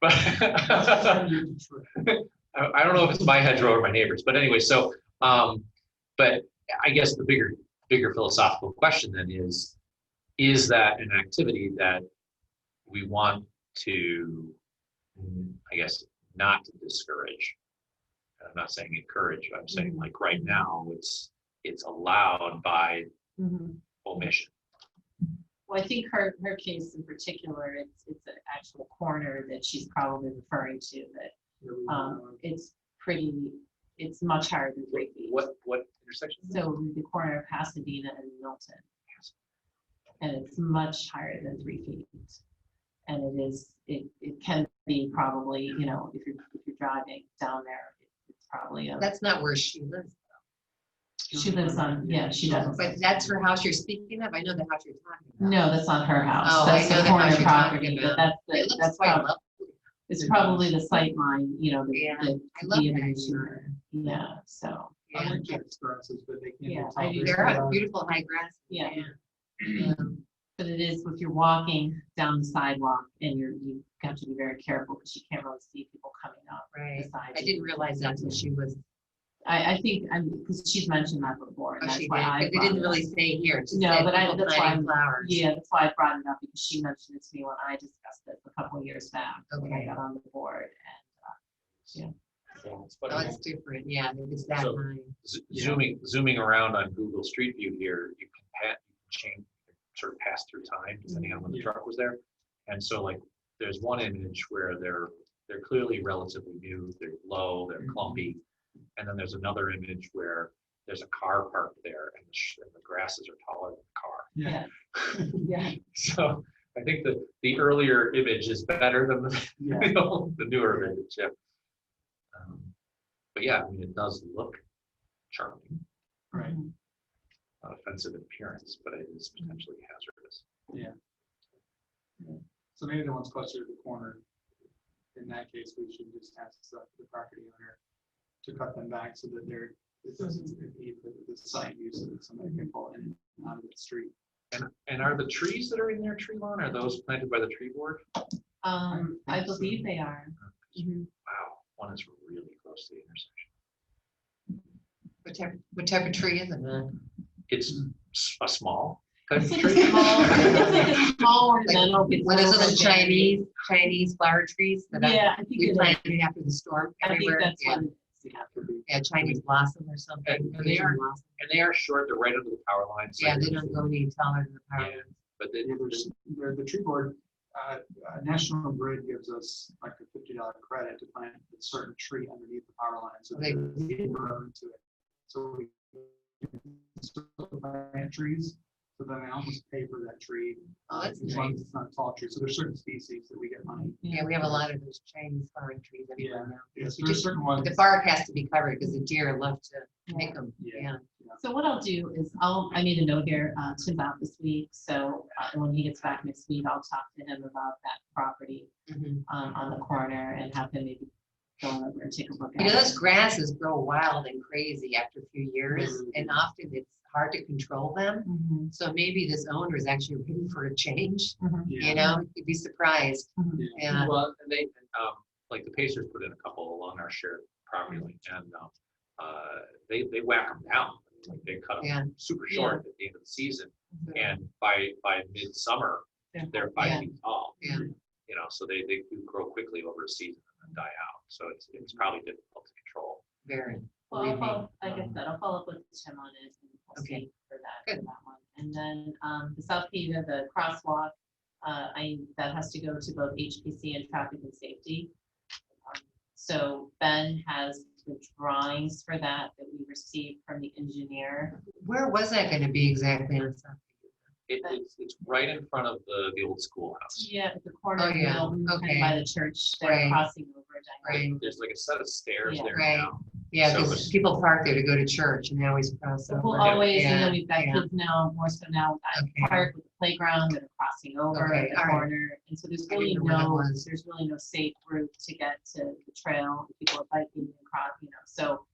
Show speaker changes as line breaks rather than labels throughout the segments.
But I I don't know if it's my hedgerow or my neighbor's, but anyway, so, um, but I guess the bigger, bigger philosophical question then is, is that an activity that we want to, mm, I guess, not to discourage? I'm not saying encourage, I'm
Mm-hmm.
saying like right now, it's, it's allowed by
Mm-hmm.
Mhm.
omission.
Well, I think her, her case in particular, it's, it's an actual corner that she's probably referring to, that, um, it's pretty, it's much higher than three feet.
What, what intersection? is that?
So the corner of Pasadena and Milton. And it's much higher than three feet. And it is, it, it can be probably, you know, if you're, if you're driving down there, it's probably, a-
That's not where she lives.
she lives on, yeah, she does.
But that's her house you're speaking of. I know the house you're talking about.
No, that's not her house.
Oh, I
That's
know
the
the house
corner
you're
property,
talking
but
about.
that's,
It
the-
looks
that's
quite
probably,
lovely.
it's probably the sight line, you know, the,
Yeah,
the.
I love
the
that
image.
idea.
Yeah, so,
Yeah.
but they can't.
Yeah,
be
I
tall.
do.
There's
They're
a lot
on
of-
beautiful high grass.
yeah.
Mm.
um, But it is, if you're walking down the sidewalk and you're, you've got to be very careful because you can't really see people coming up
Right.
beside
I
you.
didn't realize that's what she was,
I, I think, I'm, because she's mentioned that before,
oh,
and that's
she did,
why I.
but it
brought
didn't
it
really
up.
say here. It just
No,
said
but I-
people
that's why
planting
I'm-
Flowers.
Yeah, that's why I brought it up, because she mentioned it to me when I discussed it a couple of years back, when I
Okay.
got on the board.
So it's
Oh,
funny.
it's different. Yeah, it's that
So-
line.
Z- Zooming, zooming around on Google Street View here, you can pat, change, sort of pass through time, depending on when the
Yeah.
truck was there. And so like, there's one image where they're, they're clearly relatively new, they're low, they're
Mm-hmm.
Mhm.
clumpy. And then there's another image where there's a car parked there and the, sh- and the grasses are taller than the car.
Yeah,
Yeah.
So I think that the earlier image is better than the,
yeah.
you know, the newer image, yeah. Um, But yeah, I mean, it does look charming
Right.
Mm-hmm.
not offensive in appearance, but it is potentially hazardous.
So maybe the one's closer to the corner. In that case, we should just ask the the property owner to cut them back so that they're, it doesn't impede the, the site use so that somebody can pull in and out of the street.
And, and are the trees that are in their tree lawn, are those planted by the tree board?
Um, I
think so.
believe they are.
Mm-hmm.
Mhm.
Wow, one is really close to the intersection.
What type, what type of tree is it, man?
It's s- a small type
It's
of
like a
tree.
small, it's like a small ornamental. it's
One of
little
those
berry.
Chinese, Chinese flower trees that I-
Yeah, I think
we
it is.
planted after the storm
I think
everywhere.
that's
Yeah.
what it is, yeah.
Could be-
Yeah, Chinese blossom or something.
And- and they
Asian
are-
blossom.
And they are short, they're right under the power line. so
Yeah, they
you're-
don't go any taller than the power.
Yeah, But they,
Yeah, there's, there, the tree board, uh, uh, National Grid gives us like a fifty dollar credit to plant a certain tree underneath the power line, so
Okay.
there's room to it. So we can still plant trees, so then I almost pay for that tree.
Oh,
uh,
that's
As long
nice.
as it's not a tall tree, so there's certain species that we get money.
Yeah, we have a lot of those Chinese flowering trees everywhere now.
Yes,
You
there's
just-
certain ones.
The bark has to be covered because the deer love to
Yeah.
pick them. Yeah.
Yeah.
So what I'll do is I'll, I need a note here, uh, Tim's out this week, so uh, when he gets back next week, I'll talk to him about that property
Mhm.
um, on the corner and have him maybe go over and take a look
You
at
know,
it.
those grasses grow wild and crazy after a few years
Mhm.
and often it's hard to control them.
Mhm,
So maybe this owner is actually ready for a change,
mhm,
Yeah.
you know, you'd be surprised.
mhm.
Yeah.
well, and they, um, like the Pacers put in a couple along our shared property line and, um, uh, they, they whack them down. Like they cut
Yeah.
them super short at the end of the season and by, by midsummer,
They're-
they're five
Yeah.
feet tall.
Yeah.
You know, so they, they do grow quickly over a season and then die out. So it's, it's
Mm-hmm.
probably difficult to control.
Very.
Well, I'll
Believe me.
follow, like I said, I'll follow up with Tim on it. and we'll
Okay.
see For that, for that one. And then, um, the South Peter, the crosswalk, uh, I, that has to go to both HPC and traffic and safety. Um, So Ben has the drawings for that that we received from the engineer.
Where was that going to be exactly on South?
It,
But-
it's, it's right in front of the, the old schoolhouse.
Yeah, at the corner
Oh,
of
yeah,
Milton and
okay.
by the church, they're
Right.
crossing over. Diagon.
Right.
There's like a set of stairs
Yeah.
there
Right.
now.
Yeah,
So
because
it's-
people park there to go to church and they always cross
So
over.
We'll always, you know,
Yeah,
we've got
yeah.
kids now, more so now, at the
Okay.
park with the playground that are crossing over at
Okay,
the
all right.
corner. And so there's
I didn't
really
know where that
no,
was.
there's really no safe route to get to the trail. if People are biking and cross, you know, so,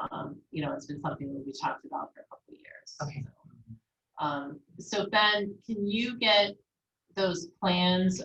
um, you know, it's been something that we talked about for a couple of years.
Okay.
so. Um, so Ben, can you get those plans